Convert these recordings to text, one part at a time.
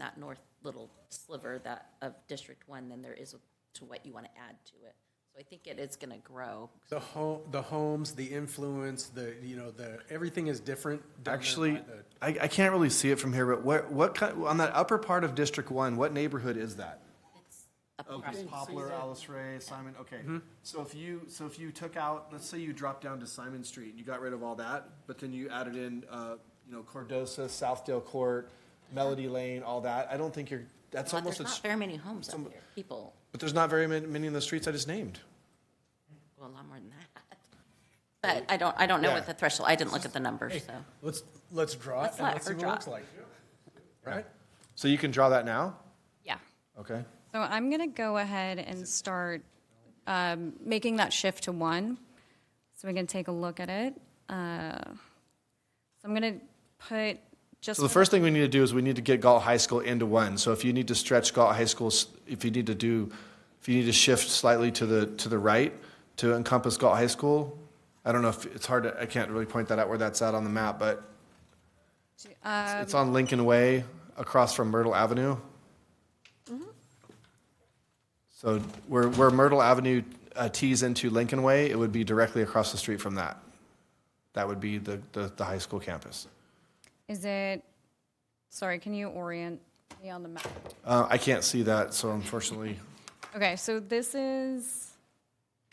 that north little sliver that, of District One than there is to what you want to add to it. So I think it is going to grow. The home, the homes, the influence, the, you know, the, everything is different. down there Actually, by the- I, I can't really see it from here, but what, what kind, on that upper part of District One, what neighborhood is that? Oh, across. Poplar, Alice Ray, Simon, okay. So if you, so if you took out, let's say you dropped down to Simon Street and you got rid of all that, but then you added in, uh, you know, Cordosa, Southdale Court, Melody Lane, all that, I don't think you're, that's But almost, There's a not s- very many homes up here, people, but there's not very many, many of the streets I just named. well, a lot more than that. But I don't, I don't know Oh, Yeah. what the threshold, I didn't look at the numbers, so. Let's, let's draw it Let's and let let's her see what it draw looks it. like. Right? So you can draw that now? Yeah. Okay. So I'm going to go ahead and start um, making that shift to one, so we can take a look at it. Uh, So I'm going to put just, So the first thing we need to do is we need to get Galt High School into one. So if you need to stretch Galt High School, s- if you need to do, if you need to shift slightly to the, to the right to encompass Galt High School, I don't know if, it's hard to, I can't really point that out where that's at on the map, but it's- it's on Lincoln Way across from Myrtle Avenue. So where, where Myrtle Avenue uh, tees into Lincoln Way, it would be directly across the street from that. That would be the, the, the high school campus. is it, sorry, can you orient me on the map? Uh, I can't see that, so unfortunately. Okay, so this is,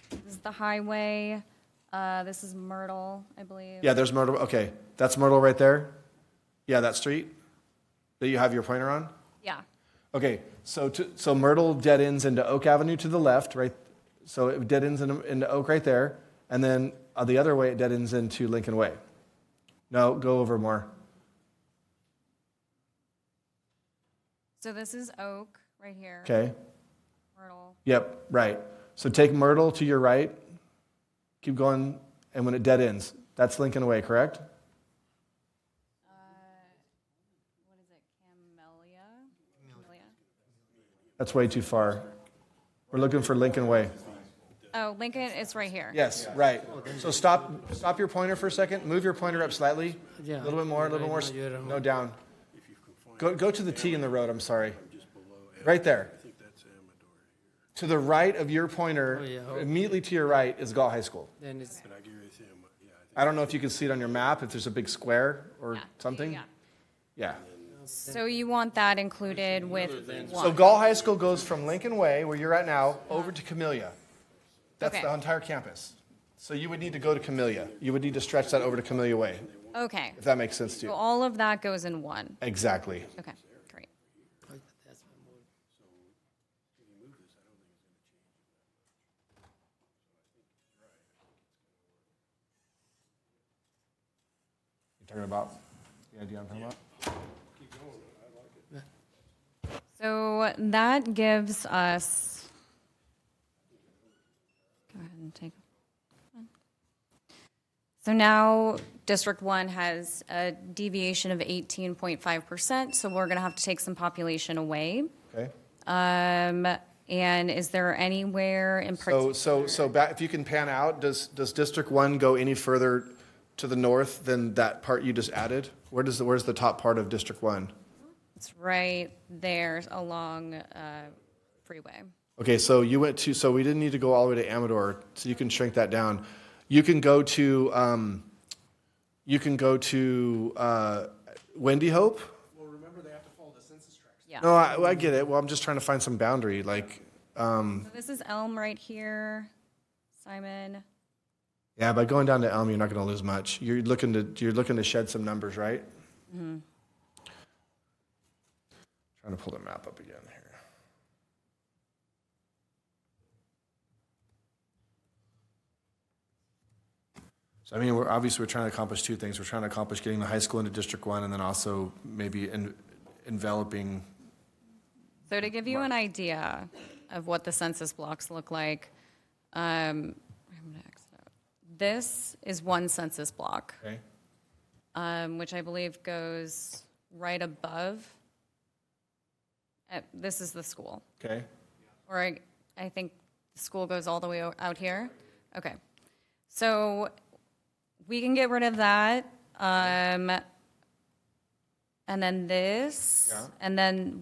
this is the highway, uh, this is Myrtle, I believe. Yeah, there's Myrtle. Okay, that's Myrtle right there. Yeah, that street that you have your pointer on. Yeah, Okay, so to, so Myrtle dead ends into Oak Avenue to the left, right? So it dead ends into, into Oak right there, and then uh, the other way it dead ends into Lincoln Way. No, go over more. so this is Oak, right here, Okay. Myrtle. Yep. Right. So take Myrtle to your right. Keep going, and when it dead ends, that's Lincoln Way, correct? Uh, What is it, Camellia? Camellia? That's way too far. We're looking for Lincoln Way. Oh, Lincoln, it's right here. Yes, right. So stop, stop your pointer for a second, move your pointer up slightly, a little bit more, a little more, s- no, down. Go, go to the T in the road, I'm sorry. Right there. To the right of your pointer, immediately to your right is Galt High School. Then it's, I don't know if you can see it on your map, if there's a big square or Yeah, something. yeah. Yeah. So you want that included with So one? Galt High School goes from Lincoln Way, where you're at now, over to Camellia. That's Okay. the entire campus. So you would need to go to Camellia. You would need to stretch that over to Camellia Way, Okay, if that makes sense to so you. all of that goes in one. Exactly. Okay, great. that's my move. You're talking about the idea I'm talking about? So that gives us, go ahead and take. So now District One has a deviation of eighteen point five percent, so we're gonna have to take some population away. Okay. Um, and is there anywhere in So, particular? so, so back, if you can pan out, does, does District One go any further to the north than that part you just added? Where does, the where's the top part of District One? It's right there along, uh, freeway. Okay, so you went to, so we didn't need to go all the way to Amador, so you can shrink that down. You can go to, um, you can go to, uh, Wendy Hope? Well, remember, they have to follow the census tracts. Yeah. No, I, I get it. Well, I'm just trying to find some boundary, like, So This is Elm right here, Simon. Yeah, by going down to Elm, you're not going to lose much. You're looking to you're looking to shed some numbers, right? Trying to pull the map up again here. So I mean, we're obviously we're trying to accomplish two things. We're trying to accomplish getting the high school into District One, and then also maybe en- enveloping. So to give you an idea of what the census blocks look like, um, I'm gonna exit out. This is one census block, Okay. um, which I believe goes right above. Uh, this is the school, Okay. or I, I think the school goes all the way o- out here. Okay, so we can get rid of that. Um, and then this, and then